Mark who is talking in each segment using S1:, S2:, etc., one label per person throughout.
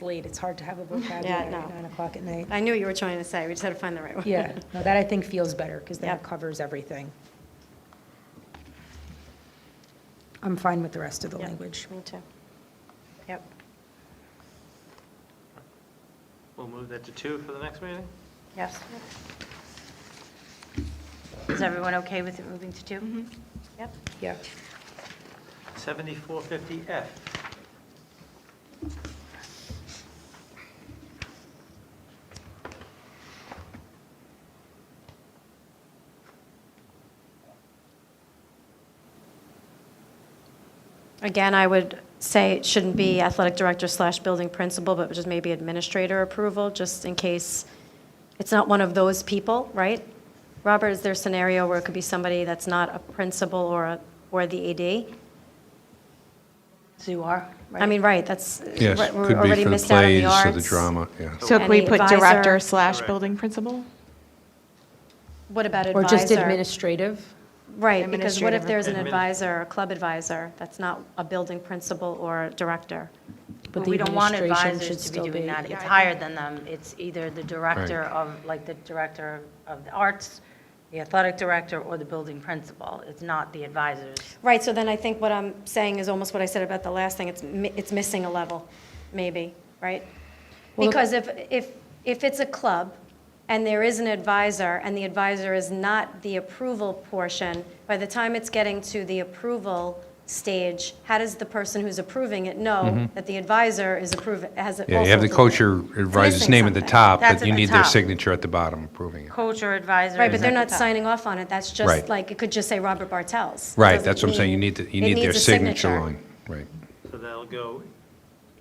S1: late, it's hard to have a
S2: Yeah,
S1: vocabulary
S2: no.
S1: at nine o'clock at night.
S2: I knew what you were trying to say, we just had to find the right one.
S1: Yeah, no, that I think feels better, because then it
S2: Yep.
S1: covers everything. I'm fine with the rest of the
S2: Yep,
S1: language.
S2: Me too. Yep.
S3: We'll move that to two for the next meeting?
S4: Yes. Is everyone okay with it moving to
S2: Mm-hmm.
S4: two?
S2: Yep.
S1: Yeah.
S3: 7450F.
S2: Again, I would say it shouldn't be athletic director slash building principal, but just maybe administrator approval, just in case it's not one of those people, right? Robert, is there a scenario where it could be somebody that's not a principal or, a- or the AD?
S4: So you are, right?
S2: I mean, right, that's,
S5: Yes,
S2: right,
S5: could
S2: we're
S5: be
S2: already
S5: for the
S2: missed out on the
S5: plays or
S2: arts.
S5: the drama, yeah.
S6: So can we
S2: Any
S6: put
S2: advisor-
S6: director slash
S3: Correct.
S6: building principal?
S2: What about
S1: Or just
S2: advisor?
S1: administrative?
S2: Right, because what if
S6: administrative.
S2: there's an
S3: Admin.
S2: advisor, a club advisor, that's not a building principal or director?
S4: But
S1: the
S4: we don't want
S1: administration should
S4: advisors to
S1: still
S4: be doing that.
S1: Yeah,
S4: It's higher than them. It's either the director of, like the director of the arts, the athletic director, or the building principal. It's not the advisors.
S2: Right, so then I think what I'm saying is almost what I said about the last thing, it's, mi- it's missing a level, maybe, right? Because if, if, if it's a club, and there is an advisor, and the advisor is not the approval portion, by the time it's getting to the approval stage, how does the person who's approving it know that the advisor is approving, has also?
S5: Yeah, you have the
S2: approved
S5: coach
S2: it?
S5: or advisor's
S2: missing
S5: name at the
S2: something.
S5: top,
S4: That's
S5: but
S4: at
S5: you
S4: the
S5: need their
S4: top.
S5: signature at the bottom approving it.
S4: Coach or advisor.
S2: Right, but
S4: is
S2: they're
S4: at the
S2: not
S4: top.
S2: signing off on it, that's just
S5: Right.
S2: like, it could just say Robert Bartels. It
S5: Right,
S2: doesn't
S5: that's what I'm saying, you
S2: mean-
S5: need, the- you
S2: it
S5: need their
S2: needs a
S5: signature line, right.
S3: So that'll go,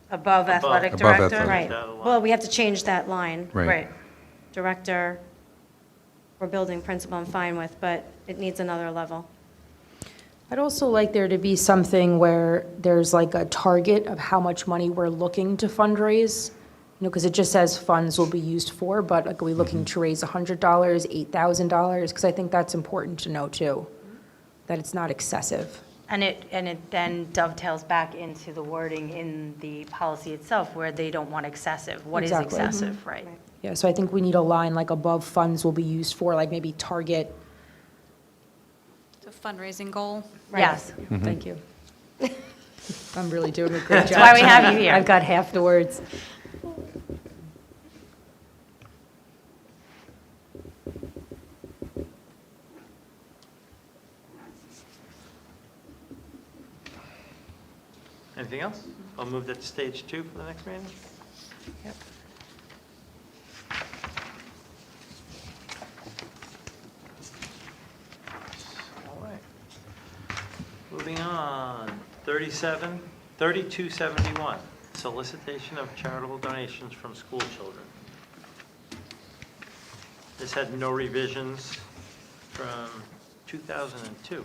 S4: Above athletic
S5: Above
S4: director.
S5: athletic.
S2: Right,
S3: That line.
S2: well, we have to change that line.
S5: Right.
S4: Right.
S2: Director or building principal, I'm fine with, but it needs another level.
S1: I'd also like there to be something where there's like a target of how much money we're looking to fundraise. You know, because it just says funds will be used for, but like, are we looking to raise $100, $8,000? Because I think that's important to know too, that it's not excessive.
S4: And it, and it then dovetails back into the wording in the policy itself where they don't want excessive. What is
S1: Exactly.
S4: excessive, right?
S1: Yeah, so I think we need a line like above funds will be used for, like maybe target.
S7: It's a fundraising goal.
S4: Yes.
S1: Thank you. I'm really doing a great job.
S4: That's why we have you here.
S1: I've got half the words.
S3: anything else? I'll move that to stage two for the next meeting? All right. Moving on, 37, 3271, solicitation of charitable donations from school children. This had no revisions from 2002.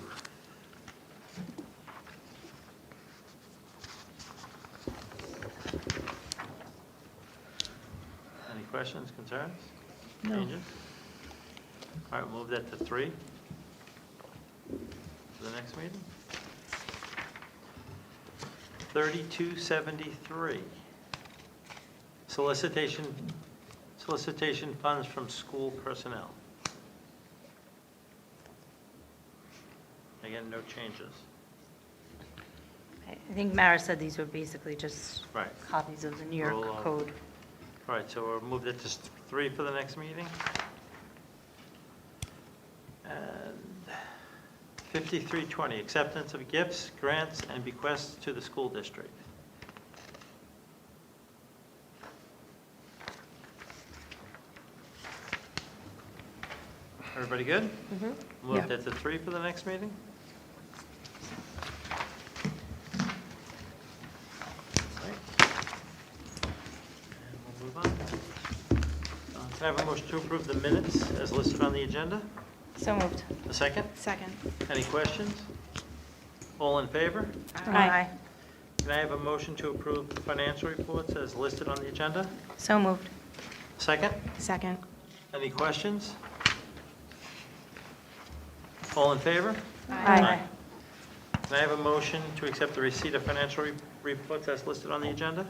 S3: Any questions, concerns? Changes? All right, move that to three for the next meeting. 3273, solicitation, solicitation funds from school personnel. Again, no changes.
S4: I think Mara said these were basically just
S3: Right.
S4: copies of the New York
S3: Roll on.
S4: code.
S3: All right, so we'll move that to s- three for the next meeting. And 5320, acceptance of gifts, grants, and bequests to the school district. Everybody good?
S1: Yeah.
S3: Move that to three for the next meeting? All right. And we'll move on. Uh, Can I have a motion to approve the minutes as listed on the agenda?
S4: So moved.
S3: A second?
S7: Second.
S3: Any questions? All in favor?
S2: Aye.
S3: Can I have a motion to approve the financial reports as listed on the agenda?
S4: So moved.
S3: Second?
S6: Second.
S3: Any questions? All in favor?
S2: Aye.
S3: Can I have a motion to accept the receipt of financial re- reports as listed on the agenda?